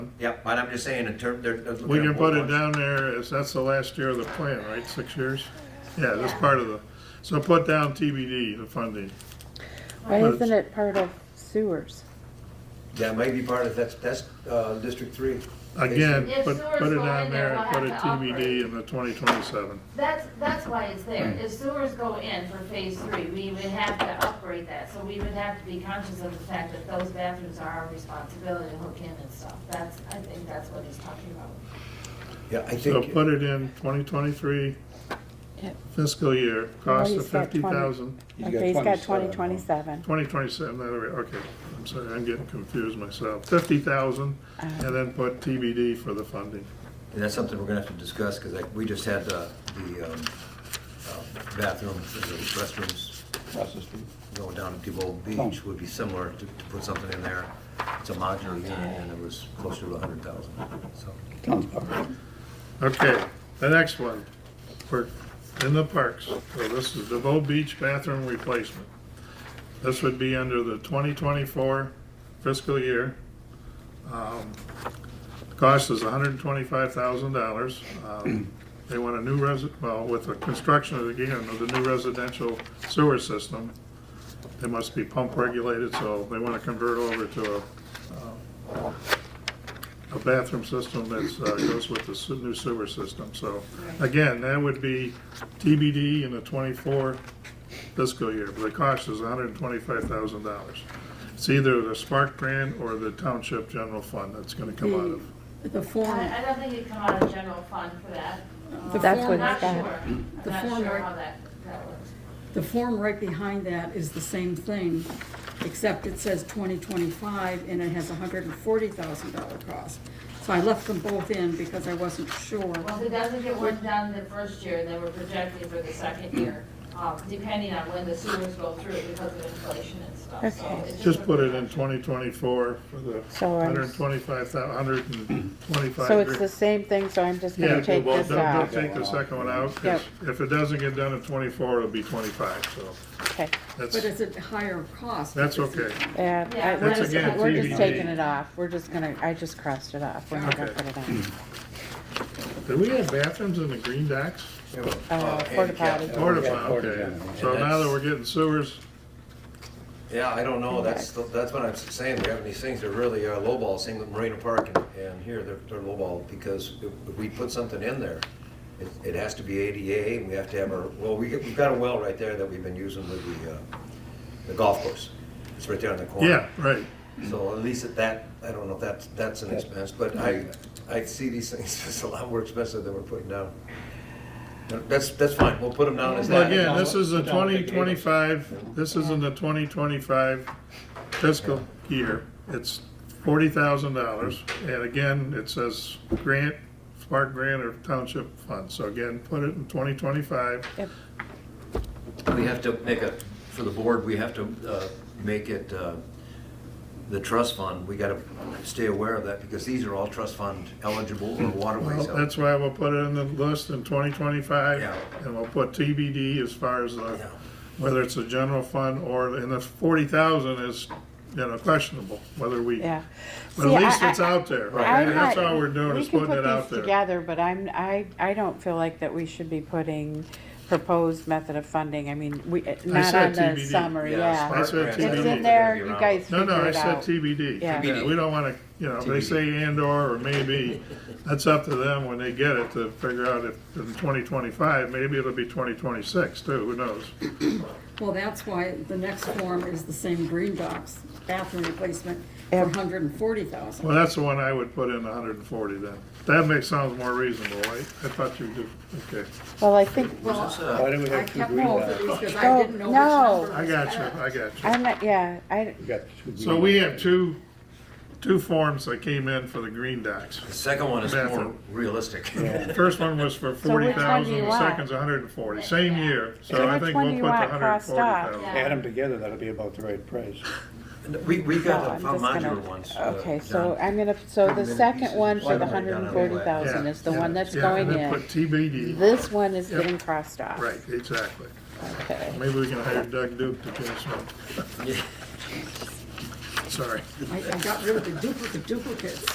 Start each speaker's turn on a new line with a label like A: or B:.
A: Yep, but I'm just saying in term, they're. they're looking
B: We
A: at
B: can
A: more
B: put it
A: ones.
B: down there, as that's the last year of the plan, right, six years? Yeah, that's part of the, so put down TBD, the funding.
C: Why
B: Well,
C: isn't it part of sewers?
A: That may be part of, that's, that's, uh, District Three.
B: Again,
D: If
B: put,
D: sewer's
B: put it
D: going
B: down
D: in there,
B: there, and
D: we'll
B: put a
D: have to operate.
B: TBD in the twenty twenty-seven.
D: That's, that's why it's there. If sewers go in for phase three, we would have to upgrade that. So we would have to be conscious of the fact that those bathrooms are our responsibility to hook in and stuff. That's, I think that's what he's talking about.
A: Yeah, I
B: So
A: think,
B: put it in twenty twenty-three
C: Yep.
B: fiscal year, cost of
C: he's got
B: fifty
C: 20.
B: thousand.
E: He's got
C: Okay, he's got twenty
E: 27.
C: twenty-seven.
B: Twenty twenty-seven, that way, okay, I'm sorry, I'm getting confused myself. Fifty thousand,
D: Uh-huh.
B: and then put TBD for the funding.
A: and that's something we're gonna have to discuss, cause like, we just had the, the, um, uh, bathrooms, and the restrooms
E: Across the street.
A: going down to Depot Beach would be similar to, to put something in there. It's a modular unit and it was closer to a hundred thousand, so.
E: Town's park.
B: Okay, the next one, we're in the parks, so this is DeVoe Beach bathroom replacement. This would be under the twenty twenty-four fiscal year. Um, Cost is hundred and twenty-five thousand dollars. Um, They want a new resi, well, with the construction of, again, of the new residential sewer system, they must be pump regulated, so they want to convert over to a uh, a bathroom system that's, uh, goes with the se- new sewer system, so. Again, that would be TBD in the twenty-four fiscal year, but the cost is hundred and twenty-five thousand dollars. It's either the Spark grant or the Township General Fund that's gonna come out of.
F: The
D: I, I
F: form,
D: don't think it'd come out of general fund for that.
F: The
D: Um,
C: That's
D: I'm
C: what
D: not
C: he's got.
D: sure. I'm
F: The
D: not
F: form
D: sure
F: rec-
D: how that, that works.
F: the form right behind that is the same thing, except it says 2025, and it has a $140,000 cost. So I left them both in because I wasn't sure.
D: Well, if it doesn't get worked done the first year, then we're projecting for the second year, um, depending on when the sewers go through because of inflation and stuff, so.
C: Okay.
D: it's
B: Just put it in twenty twenty-four for the
C: So I'm-
B: hundred and twenty-five thou, hundred and twenty-five.
C: So it's the same thing, so I'm just
B: Yeah,
C: gonna take
B: well,
C: this
B: don't, don't
C: off.
B: take the second one out, 'cause if it doesn't get done in twenty-four, it'll be twenty-five, so
C: Okay,
F: But
B: that's,
F: it's a higher cost.
B: that's okay.
C: yeah, I- we're
D: That's
C: just,
D: again
C: we're just
B: TBD.
C: taking it off. We're just gonna, I just crossed it off. We're not gonna
B: Okay. Hmm.
C: put it Oh,
B: Do
C: on.
B: we have bathrooms in the green docks?
C: Uh, porta potty.
B: Porta
E: Yeah,
B: potty,
E: porta
B: okay.
E: potty.
B: So now that we're getting sewers,
A: Yeah, I don't know, that's, that's what I'm saying, we have these things that really are lowball, same with Marina Park and, and here, they're, they're lowball, because if if we put something in there, it, it has to be ADA, and we have to have our, well, we, we've got a well right there that we've been using with the, uh, the golf course, it's right there on the corner.
B: yeah, right.
A: So at least at that, I don't know if that's, that's an expense, but I, I see these things as a lot more expensive than we're putting down. That's, that's fine, we'll put them down as
B: Well,
A: that.
B: again, this is the
E: Put down the
B: twenty
E: big
B: twenty-five, this is in the twenty twenty-five fiscal year. It's forty thousand dollars, and again, it says grant, Spark grant or township fund. So again, put it in twenty twenty-five.
A: We have to make a, for the board, we have to uh, make it uh, the trust fund. We got to stay aware of that because these are all trust fund eligible or
B: Well,
A: waterways. eligible.
B: that's why we'll put it in the list in twenty twenty-five,
A: Yeah.
B: and we'll put TBD as far as
A: Yeah.
B: the, whether it's a general fund or, and the forty thousand is, you know, questionable, whether we,
C: Yeah.
B: but
C: See,
B: at least
C: I-
B: it's out there.
C: I'm
B: And That's
C: not-
B: all we're doing
C: we
B: is
C: can
B: putting
C: put
B: it out
C: these
B: there.
C: Together, but I'm, I, I don't feel like that we should be putting proposed method of funding, I mean, we, not
B: said
C: on the
B: TBD.
C: summary, yeah.
B: That's what
A: Spark grants,
B: TBD.
C: It's
B: TBD.
C: in there, you guys
B: No,
C: figure
B: no, I
C: it
B: said
C: out.
B: TBD.
C: Yeah.
B: Yeah, We don't wanna, you know, they
A: TBD.
B: say and or or maybe, that's up to them when they get it to figure out if in twenty twenty-five, maybe it'll be twenty twenty-six too, who knows?
F: Well, that's why the next form is the same green box bathroom replacement for
C: Yep.
F: 140,000.
B: Well, that's the one I would put in hundred and forty then. That makes, sounds more reasonable, right? I thought you did, okay.
C: Well, I think,
A: Is this, uh,
E: Why do we
F: I
E: have two
F: kept
E: green
F: both of these
E: dots?
F: because
C: Oh,
F: I didn't know which
C: no.
F: number
B: I
F: was
B: got you,
F: better.
B: I got you.
C: I'm not, yeah, I,
E: We got two green
B: So we
E: dots.
B: have two, two forms that came in for the green docks.
A: The second one is more
B: Bathroom.
A: realistic.
B: The First one was for
C: So which
B: forty
C: one do
B: thousand,
C: you
B: the
C: want?
B: second's hundred and forty, same year, so
C: So
B: I
C: which
B: think
C: one
B: we'll put
C: do you
B: the
C: want
B: hundred and
C: crossed
B: forty
C: off?
B: thousand.
D: Yeah.
E: Add them together, that'll be about the right price.
A: We, we
C: no,
A: got
C: I'm
A: the
C: just
A: modular
C: gonna,
A: ones. uh,
C: okay, so
A: John.
C: I'm gonna, so the
A: Minute
C: second
A: pieces.
C: one for
A: Why
C: the
A: don't we
C: hundred
A: down
C: and
A: on the
C: forty
B: Yeah,
C: thousand is the
B: yeah,
C: one that's
B: yeah,
C: going
B: and then
C: in.
B: Put TBD,
C: This one is
B: Yep.
C: getting crossed off.
B: right, exactly.
C: Okay.
B: Maybe we can hire Doug Duke to do some. Sorry.
F: I I got rid of the duplicate duplicates.